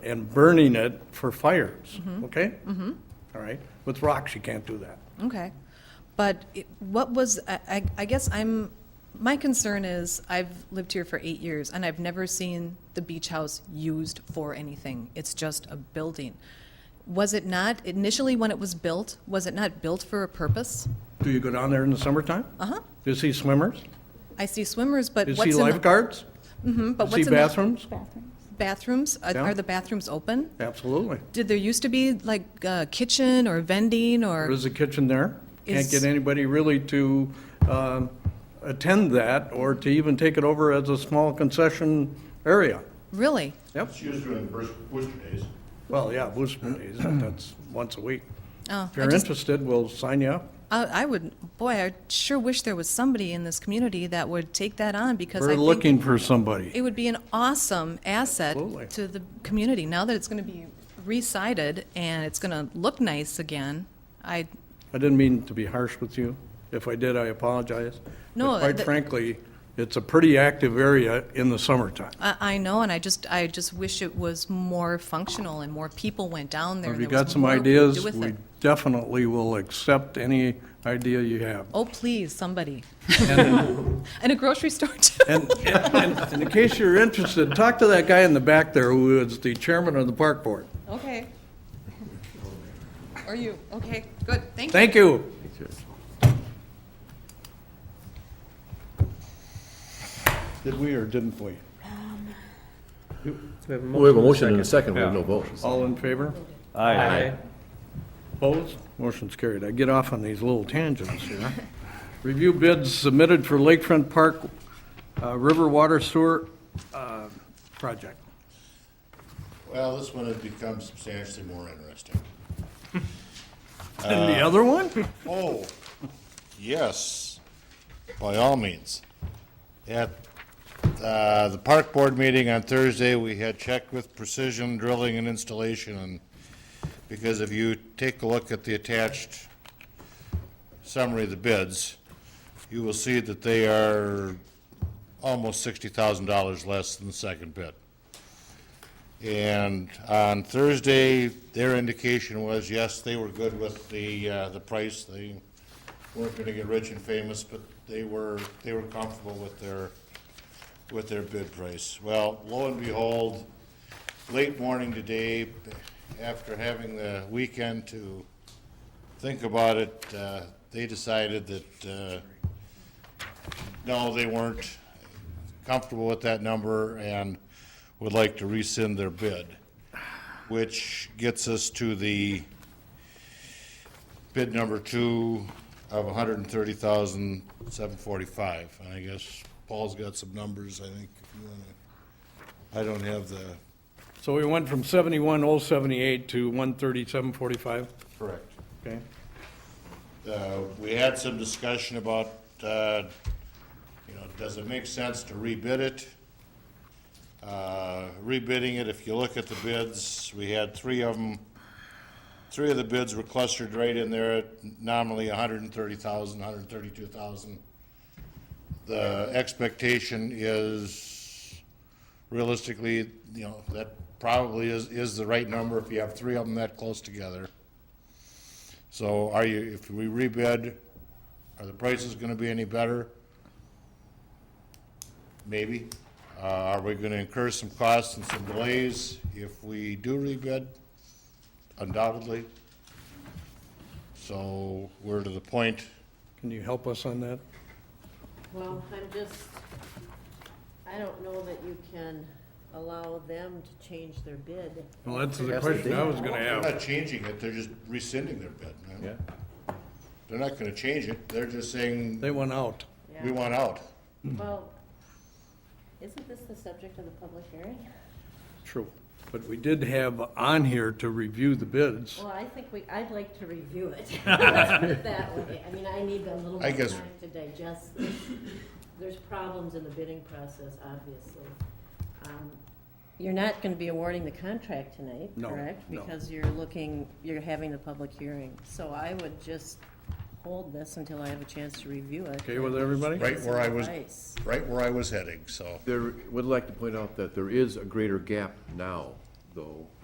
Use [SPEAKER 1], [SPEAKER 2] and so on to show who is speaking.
[SPEAKER 1] and burning it for fires, okay? Mm-hmm. right, with rocks, you can't do that.
[SPEAKER 2] Okay. But it- what was, I, I- I guess I'm, my concern is, I've lived here for eight years, and I've never seen the beach house used for anything. It's just a building. Was it not, initially when it was built, was it not built for a purpose?
[SPEAKER 1] Do you go down there in the summertime?
[SPEAKER 2] Uh-huh.
[SPEAKER 1] Do you see swimmers?
[SPEAKER 2] I see swimmers, but
[SPEAKER 1] Do you
[SPEAKER 2] what's
[SPEAKER 1] see
[SPEAKER 2] in the...
[SPEAKER 1] lifeguards?
[SPEAKER 2] Mhm, but
[SPEAKER 1] Do you
[SPEAKER 2] what's
[SPEAKER 1] see
[SPEAKER 2] in the
[SPEAKER 1] bathrooms?
[SPEAKER 2] bathrooms? Are-
[SPEAKER 1] Yeah.
[SPEAKER 2] Are the bathrooms open?
[SPEAKER 1] Absolutely.
[SPEAKER 2] Did there used to be like a kitchen or vending or?
[SPEAKER 1] There is a kitchen there. Can't
[SPEAKER 2] Is-
[SPEAKER 1] get anybody really to um, attend that or to even take it over as a small concession area.
[SPEAKER 2] Really?
[SPEAKER 1] Yep.
[SPEAKER 3] She was doing the first Worcester days.
[SPEAKER 1] Well, yeah, Booster Days, that's once a week.
[SPEAKER 2] Oh,
[SPEAKER 1] If
[SPEAKER 2] I
[SPEAKER 1] you're
[SPEAKER 2] just,
[SPEAKER 1] interested, we'll sign you up.
[SPEAKER 2] I, I would, boy, I sure wish there was somebody in this community that would take that on because I
[SPEAKER 1] We're
[SPEAKER 2] think
[SPEAKER 1] looking for somebody.
[SPEAKER 2] it would be an awesome asset
[SPEAKER 1] Absolutely.
[SPEAKER 2] to the community. Now that it's going to be re-sided and it's going to look nice again, I,
[SPEAKER 1] I didn't mean to be harsh with you. If I did, I apologize. But
[SPEAKER 2] No,
[SPEAKER 1] Quite
[SPEAKER 2] the-
[SPEAKER 1] frankly, it's a pretty active area in the summertime.
[SPEAKER 2] I, I know, and I just, I just wish it was more functional and more people went down there.
[SPEAKER 1] If
[SPEAKER 2] and
[SPEAKER 1] you
[SPEAKER 2] there was
[SPEAKER 1] got some
[SPEAKER 2] more we could
[SPEAKER 1] ideas,
[SPEAKER 2] do with
[SPEAKER 1] we
[SPEAKER 2] it.
[SPEAKER 1] definitely will accept any idea you have.
[SPEAKER 2] Oh, please, somebody. And a grocery store too.
[SPEAKER 1] And, and and in case you're interested, talk to that guy in the back there who is the chairman of the park board.
[SPEAKER 2] Okay. Are you, okay, good, thank you.
[SPEAKER 1] Thank you. Did we or didn't we?
[SPEAKER 4] We have a motion and a second, we have no vote.
[SPEAKER 1] All in favor?
[SPEAKER 4] Aye.
[SPEAKER 1] Opposed? Motion's carried. I get off on these little tangents here. Review bids submitted for Lakefront Park uh, River Water Sewer uh, Project.
[SPEAKER 3] Well, this one has become substantially more interesting.
[SPEAKER 1] And the other one?
[SPEAKER 3] Oh, yes, by all means. At uh, the park board meeting on Thursday, we had checked with precision drilling and installation, and because if you take a look at the attached summary of the bids, you will see that they are almost sixty thousand dollars less than the second bid. And on Thursday, their indication was, yes, they were good with the, uh, the price. They weren't gonna get rich and famous, but they were, they were comfortable with their, with their bid price. Well, lo and behold, late morning today, after having the weekend to think about it, uh, they decided that, uh, no, they weren't comfortable with that number and would like to rescind their bid, which gets us to the bid number two of a hundred and thirty thousand, seven forty-five. And I guess Paul's got some numbers, I think, if you wanna, I don't have the.
[SPEAKER 1] So we went from 71,078 to 137,45,
[SPEAKER 3] Correct.
[SPEAKER 1] okay?
[SPEAKER 3] Uh, we had some discussion about, uh, you know, does it make sense to rebid it? Uh, Rebidding it, if you look at the bids, we had three of them. Three of the bids were clustered right in there at nominally a hundred and thirty thousand, hundred and thirty-two thousand. The expectation is realistically, you know, that probably is, is the right number if you have three of them that close together. So are you, if we rebid, are the prices gonna be any better? Maybe. Uh, are we gonna incur some costs and some delays if we do rebid? Undoubtedly. So we're to the point,
[SPEAKER 1] Can you help us on that?
[SPEAKER 5] Well, I'm just, I don't know that you can allow them to change their bid.
[SPEAKER 1] Well, that's the question I was going to
[SPEAKER 3] they're
[SPEAKER 1] have.
[SPEAKER 3] not changing it, they're just rescinding their bid. man. They're not gonna change it, they're just saying,
[SPEAKER 1] They went out.
[SPEAKER 3] we want out.
[SPEAKER 5] Well, isn't this the subject of the public hearing?
[SPEAKER 1] True. But we did have on here to review the bids.
[SPEAKER 5] Well, I think we, I'd like to review it. Let's put it that way. I mean, I need a little more
[SPEAKER 3] I
[SPEAKER 5] time
[SPEAKER 3] guess-
[SPEAKER 5] to digest this. There's problems in the bidding process, obviously. Um, You're not gonna be awarding the contract tonight,
[SPEAKER 1] No,
[SPEAKER 5] correct?
[SPEAKER 1] no.
[SPEAKER 5] Because you're looking, you're having the public hearing. So I would just hold this until I have a chance to review it.
[SPEAKER 1] Okay with everybody?
[SPEAKER 3] Right where I was,
[SPEAKER 5] Advice.
[SPEAKER 3] right where I was heading, so.
[SPEAKER 4] There, would like to point out that there is a greater gap now
[SPEAKER 3] though,